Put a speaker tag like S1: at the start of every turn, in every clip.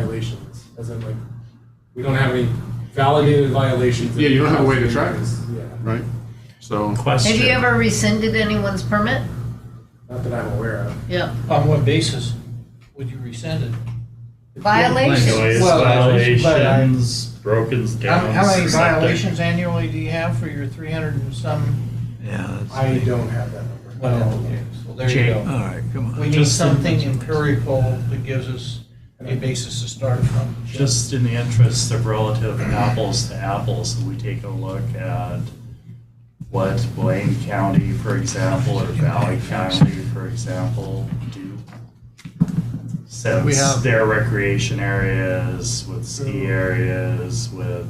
S1: violations, as in like, we don't have any validated violations.
S2: Yeah, you don't have a way to track it.
S1: Yeah,
S2: right? So,
S3: Question.
S4: Have you ever rescinded anyone's permit?
S1: not that I'm aware of.
S4: Yeah.
S5: On what basis would you rescind it?
S4: Violations?
S3: Noise,
S5: Well, I- but I-
S3: violations, broken
S5: How
S3: down.
S5: how many
S3: septic.
S5: violations annually do you have for your 300 and some?
S6: Yeah. that's-
S1: I don't have that number.
S5: Well,
S6: okay.
S5: Well, there you
S3: Jane.
S5: go.
S6: All right, come on.
S5: We need
S3: Just-
S5: something empirical that gives us a basis to start from.
S3: Just in the interest of relative apples to apples, if we take a look at what Blaine County, for example, or Valley County, for example, do.
S6: We
S3: Since
S6: have-
S3: their recreation areas, with ski areas, with,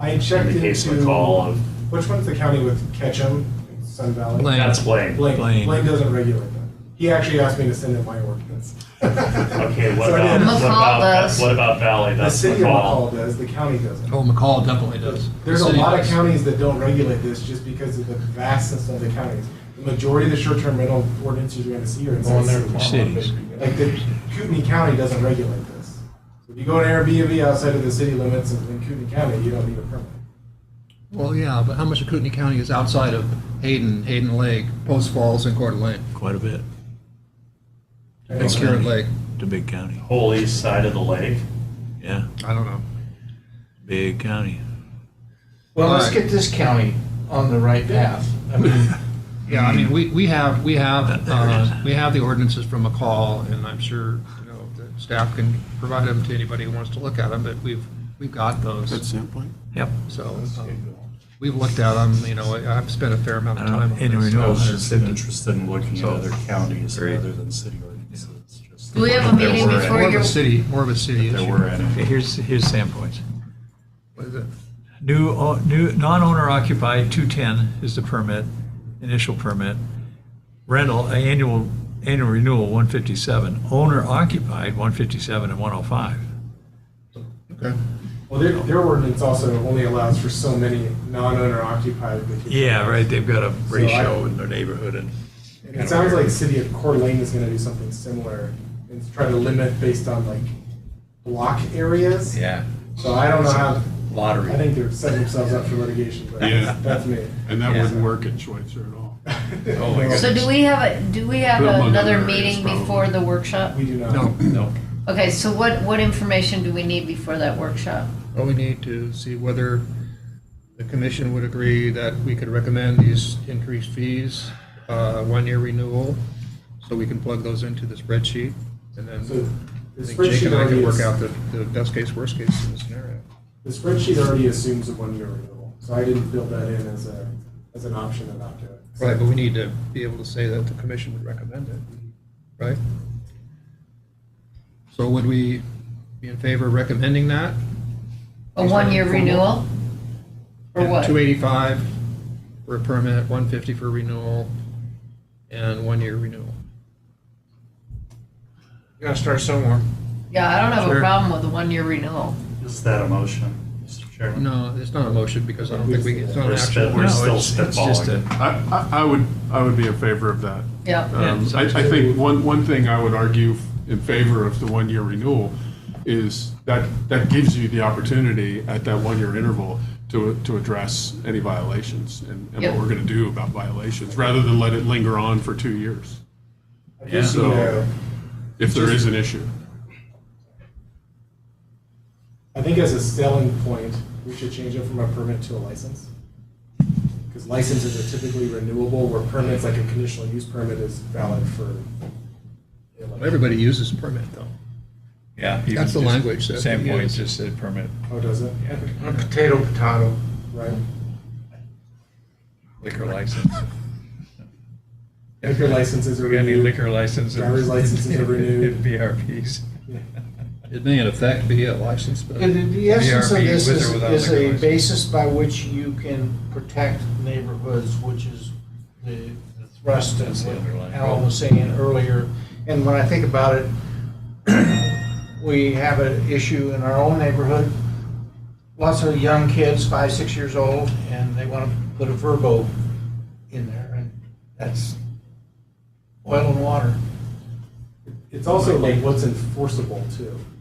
S1: I checked
S3: in the case of um, call
S1: into,
S3: of,
S1: which one's the county with Ketchum, Sun Valley?
S6: Blaine.
S3: that's Blaine.
S1: Blaine.
S6: Blaine.
S1: Blaine doesn't regulate that. He actually asked me to send in my ordinance.
S3: Okay, what
S1: So I
S3: about,
S1: did.
S4: McCall
S3: what about,
S4: does.
S3: what about Valley?
S1: The
S3: That's
S1: city of
S3: McCall.
S1: McCall does, the county doesn't.
S6: Oh, McCall definitely does.
S1: There's
S6: The
S1: a
S6: city
S1: lot of
S6: does.
S1: counties that don't regulate this just because of the vastness of the counties. The majority of the short-term rental ordinances you're gonna see are in
S5: Well, they're
S1: cities.
S6: Cities.
S1: Like the Kootenai County doesn't regulate this. If you go to Airbnb outside of the city limits of in Kootenai County, you don't need a permit.
S7: Well, yeah, but how much of Kootenai County is outside of Hayden, Hayden Lake, Post Falls, and Coeur d'Alene?
S6: Quite a bit.
S7: And Spirit Lake?
S6: It's a big county.
S3: Whole east side of the lake.
S6: Yeah,
S7: I don't know.
S6: big county.
S5: Well, let's
S7: Right.
S5: get this county on the right path. I mean,
S7: Yeah, I mean, we, we have, we have,
S6: There it is.
S7: uh, we have the ordinances from McCall, and I'm sure, you know, the staff can provide them to anybody who wants to look at them, but we've, we've got
S2: that's
S7: those.
S2: the end point.
S6: Yep.
S7: So, um, we've looked at them, you know, I- I've spent a fair amount of
S6: I don't
S7: time on
S6: know,
S7: this.
S6: anyway,
S3: I
S6: no.
S7: so-
S3: was just interested in looking at
S6: So-
S3: other counties
S6: Great.
S3: rather than city ordinances. just-
S4: Do we have a
S3: if there
S4: meeting
S3: were
S4: before
S7: More
S3: any-
S7: of
S4: your-
S7: a city, more of a city
S3: If there
S7: issue.
S3: were any.
S6: Okay, here's, here's Sandpoint's.
S7: What is it?
S6: New, o- new, non-owner occupied, 210 is the permit, initial permit. Rental, uh, annual, annual renewal, 157. Owner occupied, 157 and 105.
S7: Okay.
S1: Well, their, their ordinance also only allows for so many non-owner occupied. vacation
S6: Yeah, right, they've got a
S1: So I-
S6: ratio in their neighborhood and.
S1: And it sounds like city of Coeur d'Alene is gonna do something similar and try to limit based on like block areas.
S6: Yeah.
S1: So I don't know how,
S6: Lottery.
S1: I think they're setting themselves up for litigation, but
S2: Yeah.
S1: that's me.
S2: And that
S6: Yeah.
S2: wouldn't work at Schweitzer at all.
S6: Oh my
S4: So do we have, a do we have
S2: Put 'em on
S4: another
S2: other
S4: meeting
S2: areas,
S4: before
S2: probably.
S4: the workshop?
S1: We do not.
S7: No,
S6: No.
S4: Okay, so what, what information do we need before that workshop?
S7: Well, we need to see whether the commission would agree that we could recommend these increased fees, uh, one-year renewal, so we can plug those into the spreadsheet,
S1: So
S7: and then I
S1: the
S7: think Jake
S1: spreadsheet
S7: and I
S1: already
S7: can work
S1: is-
S7: out the, the best case, worst case scenario.
S1: The spreadsheet already assumes a one-year renewal, so I didn't build that in as a, as an option to not do it. So-
S7: Right, but we need to be able to say that the commission would recommend it, right? So would we be in favor of recommending that?
S4: A one-year renewal? Or what?
S7: Two eighty-five for a permit, one fifty for renewal, and one-year renewal.
S5: you gotta start somewhere.
S4: Yeah, I don't have a
S7: Sure.
S4: problem with a one-year renewal.
S3: Is that a motion, Mr. Chairman?
S7: No, it's not a motion because I don't think we, it's not
S3: We're
S7: an
S3: still-
S7: actual.
S3: we're
S6: No,
S3: still
S6: it's- it's just
S3: spitballing.
S6: a-
S2: I, I- I would, I would be in favor of that.
S4: Yeah.
S2: Um, I, I think one, one thing I would argue in favor of the one-year renewal is that, that gives you the opportunity at that one-year interval to, to address any violations and and what
S4: Yep.
S2: we're going to do about violations, rather than let it linger on for two years,
S1: I just
S2: Yeah.
S1: need a-
S2: if there is an issue.
S1: I think as a selling point, we should change it from a permit to a license. Because licenses are typically renewable, where permits, like a conditional use permit, is valid for.
S7: Everybody uses permit though.
S6: Yeah.
S7: That's the language that we
S6: Sandpoint
S7: use.
S6: just said permit.
S1: Oh, does it?
S5: Potato, potato.
S1: Right.
S6: liquor license.
S1: Liquor licenses are
S6: We got any
S1: renewed.
S6: liquor licenses?
S1: Driver's licenses are renewed.
S6: VRPs.
S1: Yeah.
S7: It may in effect be a license, but.
S5: The- The the essence of
S6: VRP
S5: this
S6: with or
S5: is,
S6: without
S5: is
S6: liquor
S5: a
S6: license.
S5: basis by which you can protect neighborhoods, which is the the thrust
S6: That's
S5: of
S6: the
S5: what
S6: underlying
S5: Alan
S6: problem.
S5: was saying earlier. And when I think about it, we have an issue in our own neighborhood. Lots of young kids, five, six years old, and they want to put a verbo in there, and that's oil and water.
S1: It's also like what's enforceable too.